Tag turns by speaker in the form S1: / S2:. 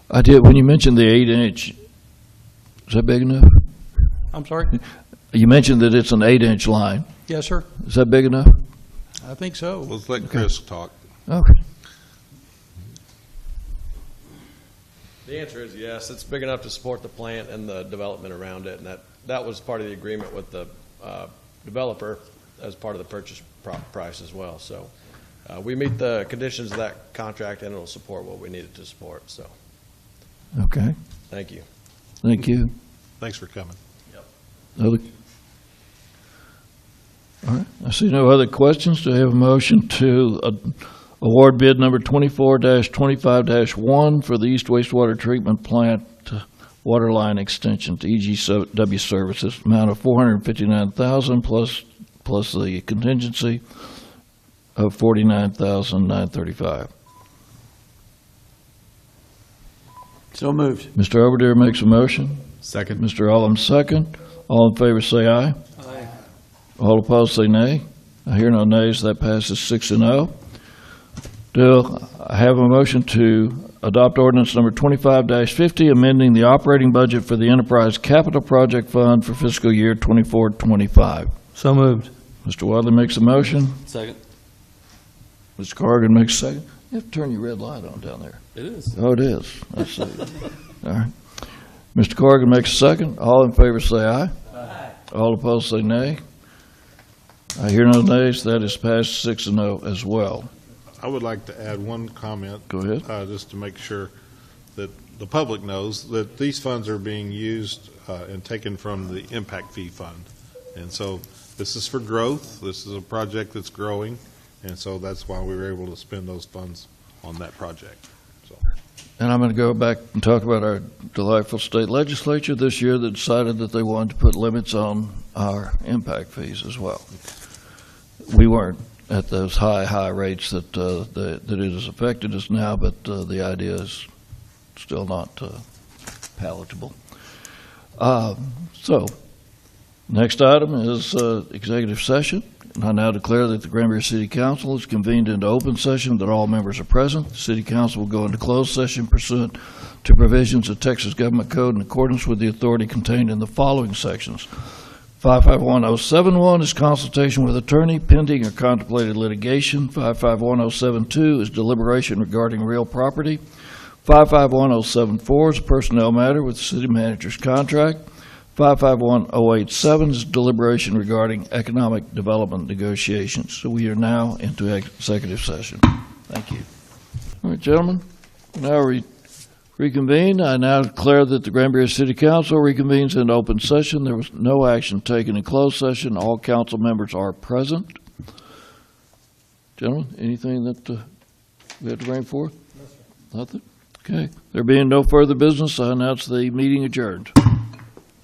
S1: I did, when you mentioned the eight inch, is that big enough?
S2: I'm sorry?
S1: You mentioned that it's an eight inch line.
S2: Yes, sir.
S1: Is that big enough?
S2: I think so.
S3: Let's let Chris talk.
S1: Okay.
S4: The answer is yes, it's big enough to support the plant and the development around it, and that, that was part of the agreement with the uh, developer as part of the purchase pro- price as well, so uh, we meet the conditions of that contract, and it'll support what we need it to support, so,
S1: Okay.
S4: thank you.
S1: Thank you.
S3: Thanks for coming.
S1: Other? All right, I see no other questions. Do I have a motion to uh, award bid number twenty-four twenty-five one for the East Wastewater Treatment Plant Water Line Extension to E EGW Services, amount of four hundred and fifty-nine thousand plus, plus the contingency of forty-nine thousand nine thirty-five.
S5: So moved.
S1: Mr. Oberdehr makes a motion.
S6: Second.
S1: Mr. Allen second. All in favor say aye.
S5: Aye.
S1: All opposed say nay. I hear no nays, that passes six and oh. Do I have a motion to adopt ordinance number twenty-five fifty, amending the operating budget for the Enterprise Capital Project Fund for fiscal year twenty-four, twenty-five?
S5: So moved.
S1: Mr. Wadley makes a motion,
S5: Second.
S1: Mr. Corrigan makes a second. You have to turn your red light on down there.
S6: It is.
S1: Oh, it is. I see. All right. Mr. Corrigan makes a second. All in favor say aye. All opposed say nay. I hear no nays. That is passed six and oh as well.
S3: I would like to add one comment,
S1: Go ahead.
S3: uh, just to make sure that the public knows that these funds are being used uh, and taken from the impact fee fund. And so this is for growth. This is a project that's growing. And so that's why we were able to spend those funds on that project.
S1: And I'm going to go back and talk about our delightful state legislature this year that decided that they wanted to put limits on our impact fees as well. We weren't at those high, high rates that, uh, that that it has affected us now, but uh, the idea is still not uh, palatable. Uh, So, next item is uh, executive session. And I now declare that the Granbury City Council is convened into open session, that all members are present. The City Council will go into closed session pursuant to provisions of Texas Government Code in accordance with the authority contained in the following sections. 551071 is consultation with attorney pending or contemplated litigation. 551072 is deliberation regarding real property. 551074 is a personnel matter with the city manager's contract. 551087 is deliberation regarding economic development negotiations. So we are now into executive session. Thank you. All right, gentlemen, we now we reconvene. I now declare that the Granbury City Council reconvenes in open session. There was no action taken in closed session. All council members are present. Gentlemen, anything that uh, we have to bring forth? Nothing? Okay. There being no further business, I announce the meeting adjourned.